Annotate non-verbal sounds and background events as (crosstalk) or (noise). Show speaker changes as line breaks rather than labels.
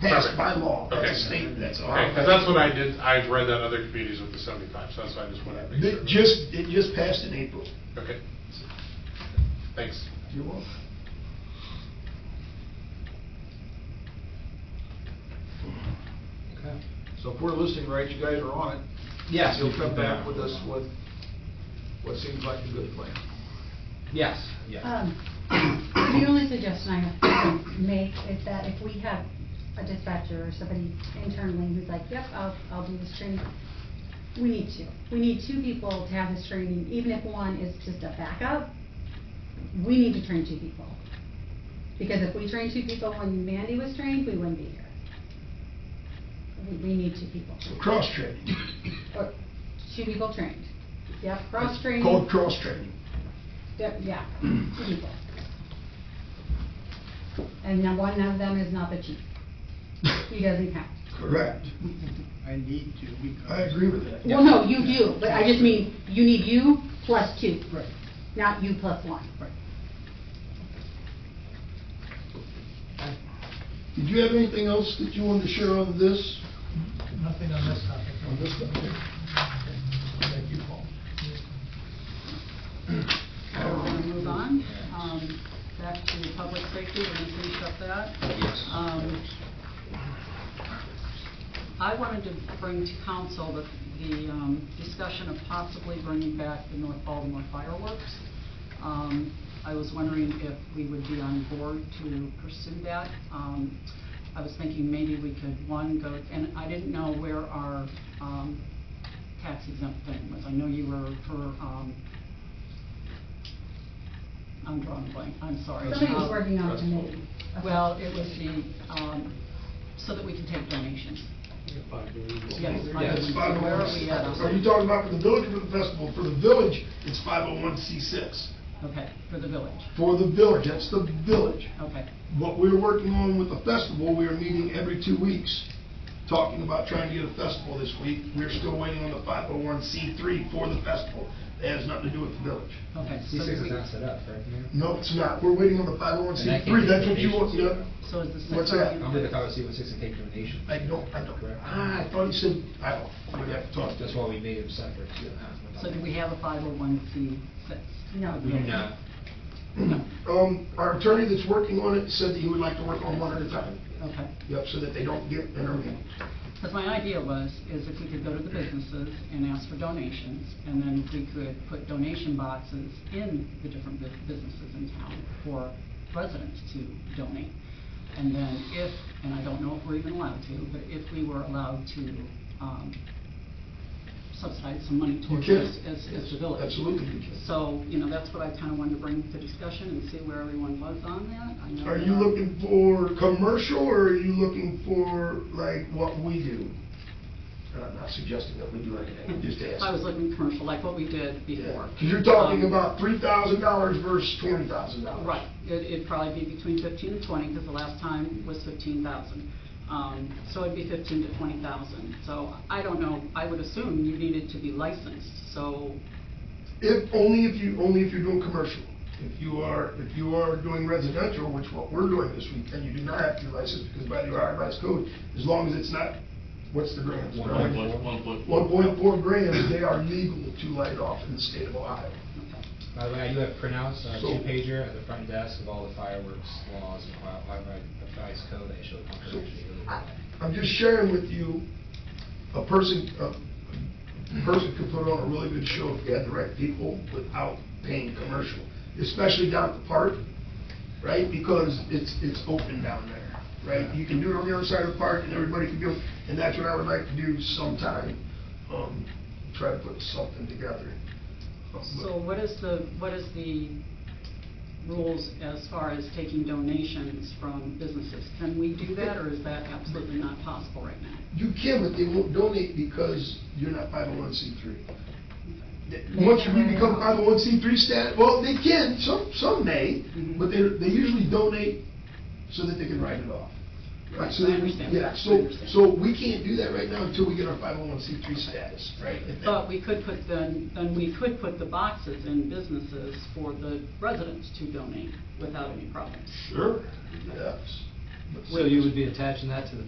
That's by law,
Okay.
that's a state, that's all.
Okay, because that's what I did, I've read that in other communities with the seventy-five, so that's why I just wanted to make
It
sure.
just, it just passed in April.
Okay. Thanks.
You're welcome.
Okay. So if we're listening right, you guys are on it.
Yes.
You'll come back with us with what seems like a good plan.
Yes,
Uh,
yes.
Um, (coughs) The only suggestion I would make is that if we have a dispatcher or somebody internally who's like, yep, I'll, I'll do this training, we need two. We need two people to have this training, even if one is just a backup, we need to train two people. Because if we trained two people when Mandy was trained, we wouldn't be here. We, we need two people,
So cross-training.
or two people trained. Yep, cross-training.
Called cross-training.
Yeah, yeah, people. And now one of them is not the chief. He doesn't count.
Correct.
I need to because.
I agree with that.
Well, no, you do, but I just mean, you need you plus two,
Right,
not you plus one.
right.
Did you have anything else that you wanted to share on this?
Nothing on this topic.
On this topic?
Thank you, Paul.
I want to move on, um, back to public safety, we're gonna finish up that. Um, I wanted to bring to council the, the, um, discussion of possibly bringing back the North Baltimore fireworks. Um, I was wondering if we would be on board to pursue that. Um, I was thinking maybe we could, one, go, and I didn't know where our, um, tax exempt thing was. I know you were for, um, I'm drawing a blank, I'm sorry.
Somebody was
Um,
working on a committee.
well, it was the, um, so that we can take donations. Yes. I
Yes.
was-
Five oh
Where
one.
are we at? on-
Are you talking about for the village or for the festival? For the village, it's five oh one C six.
Okay, for the village,
For the village, that's the village.
okay.
What we're working on with the festival, we are meeting every two weeks, talking about trying to get a festival this week. We're still waiting on the five oh one C three for the festival. That has nothing to do with the village.
Okay. so
C six
do
is
we-
not set up, right, Mayor?
No, it's not. We're waiting on the five oh one C
And I can't
three.
get
That's what you want, yeah.
donations.
So is the six.
What's
of
that?
you-
I'm with the Colorado Seaman Six and take donations.
I don't, I don't.
Correct.
Ah, I thought you said, I don't. We'd have to talk.
That's why we made them separate.
Ah.
So do we have a five oh one C six?
No.
We do not.
Um, our attorney that's working on it said that he would like to work on one at a time.
Okay.
Yep, so that they don't get intermingled.
Because my idea was, is if we could go to the businesses and ask for donations, and then we could put donation boxes in the different bu- businesses in town for residents to donate. And then if, and I don't know if we're even allowed to, but if we were allowed to um, subsidize some money
You
towards
can.
this as, as the village.
Absolutely, you can.
So, you know, that's what I kind of wanted to bring to discussion and see where everyone was on that. I know
Are you
that- (laughs)
looking for commercial, or are you looking for like what we do? And I'm not suggesting that we do anything, I'm just asking.
I was looking commercial, like what we did before.
Because you're talking
Um,
about three thousand dollars versus twenty thousand dollars.
Right, it, it'd probably be between fifteen and twenty, because the last time was fifteen thousand. Um, so it'd be fifteen to twenty thousand, so I don't know, I would assume you needed to be licensed, so,
If, only if you, only if you're doing commercial. If you are, if you are doing residential, which what we're doing this week, and you do not have to be licensed, because by the IRS code, as long as it's not, what's the grams?
One
Brian?
point four.
One point four grams, they are legal to light off in the state of Ohio.
okay.
By the way, I do have printouts, uh,
So-
two pager at the front desk of all the fireworks laws and why, why my advice code I showed
So,
confirmation.
I- I'm just sharing with you, a person, a a person could put on a really good show if they had the right people without paying commercial, especially down at the park, right? Because it's, it's open down there, right? You can do it on the other side of the park and everybody can do, it, and that's what I would like to do sometime, um, try to put something together.
So what is the, what is the rules as far as taking donations from businesses? Can we do that, or is that absolutely not possible right now?
You can, but they won't donate because you're not five oh one C three.
They
Once
can't
we
run it
become
out.
five oh one C three stat, well, they can, some, some may,
Mhm.
but they, they usually donate so that they can write it off. Right, so
I
they-
understand.
Yeah,
I
so,
understand.
so we can't do that right now until we get our five oh one C three status, right? And then-
But we could put then, then we could put the boxes in businesses for the residents to donate without any problems.
Sure, yes. But
So you would be attaching that to the